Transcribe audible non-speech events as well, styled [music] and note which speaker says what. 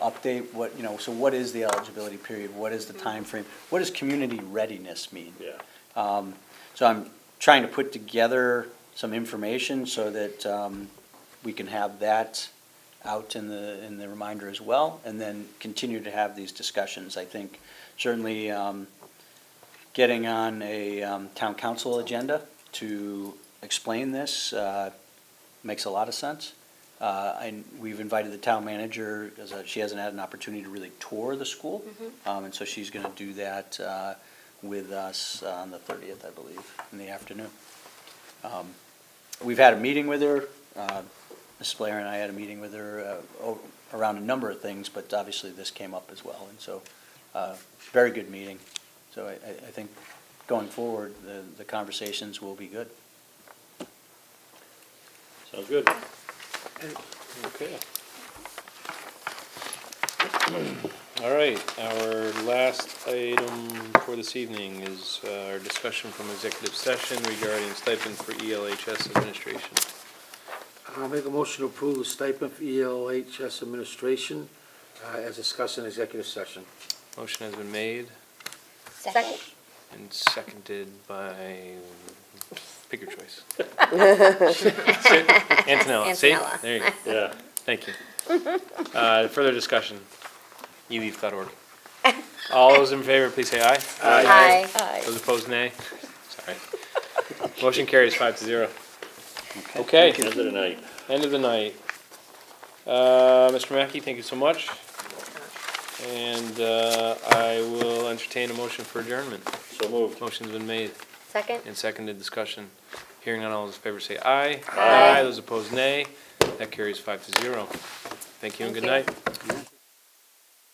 Speaker 1: update what, you know, so what is the eligibility period? What is the time frame? What does community readiness mean? Um,
Speaker 2: Yeah.
Speaker 1: So I'm trying to put together some information so that um, we can have that out in the, in the reminder as well, and then continue to have these discussions. I think certainly um, getting on a um, town council agenda to explain this uh, makes a lot of sense. Uh, And we've invited the town manager, as uh, she hasn't had an opportunity to really tour the school, Um, and so she's going to do that uh, with us on the 30th, I believe, in the afternoon. Um, We've had a meeting with her, uh, Ms. Blair and I had a meeting with her uh, o- around a number of things, but obviously this came up as well, and so, uh, very good meeting. So I, I I think going forward, the, the conversations will be good.
Speaker 2: Sounds good. Okay. [clears throat] All right, our last item for this evening is uh, our discussion from executive session regarding stipend for E ELHS administration.
Speaker 3: I'll make a motion to approve the stipend for E ELHS administration uh, as discussed in executive session.
Speaker 2: Motion has been made
Speaker 4: Second.
Speaker 2: and seconded by, pick your choice. Antonella, see?
Speaker 4: Antonella.
Speaker 2: There you go. Yeah. Thank you. Uh, Further discussion? eleaf.org. All those in favor, please say aye.
Speaker 4: Aye.
Speaker 2: Those opposed, nay. Sorry. Motion carries five to zero. Okay,
Speaker 5: End of the night.
Speaker 2: end of the night. Uh, Mr. Mackey, thank you so much. And, uh, I will entertain a motion for adjournment.
Speaker 5: So moved.
Speaker 2: Motion's been made
Speaker 4: Second?
Speaker 2: and seconded, discussion. Hearing on all those in favor say aye.
Speaker 4: Aye.
Speaker 2: Those opposed, nay. That carries five to zero. Thank you and
Speaker 4: Thank
Speaker 2: good
Speaker 4: you.
Speaker 2: night.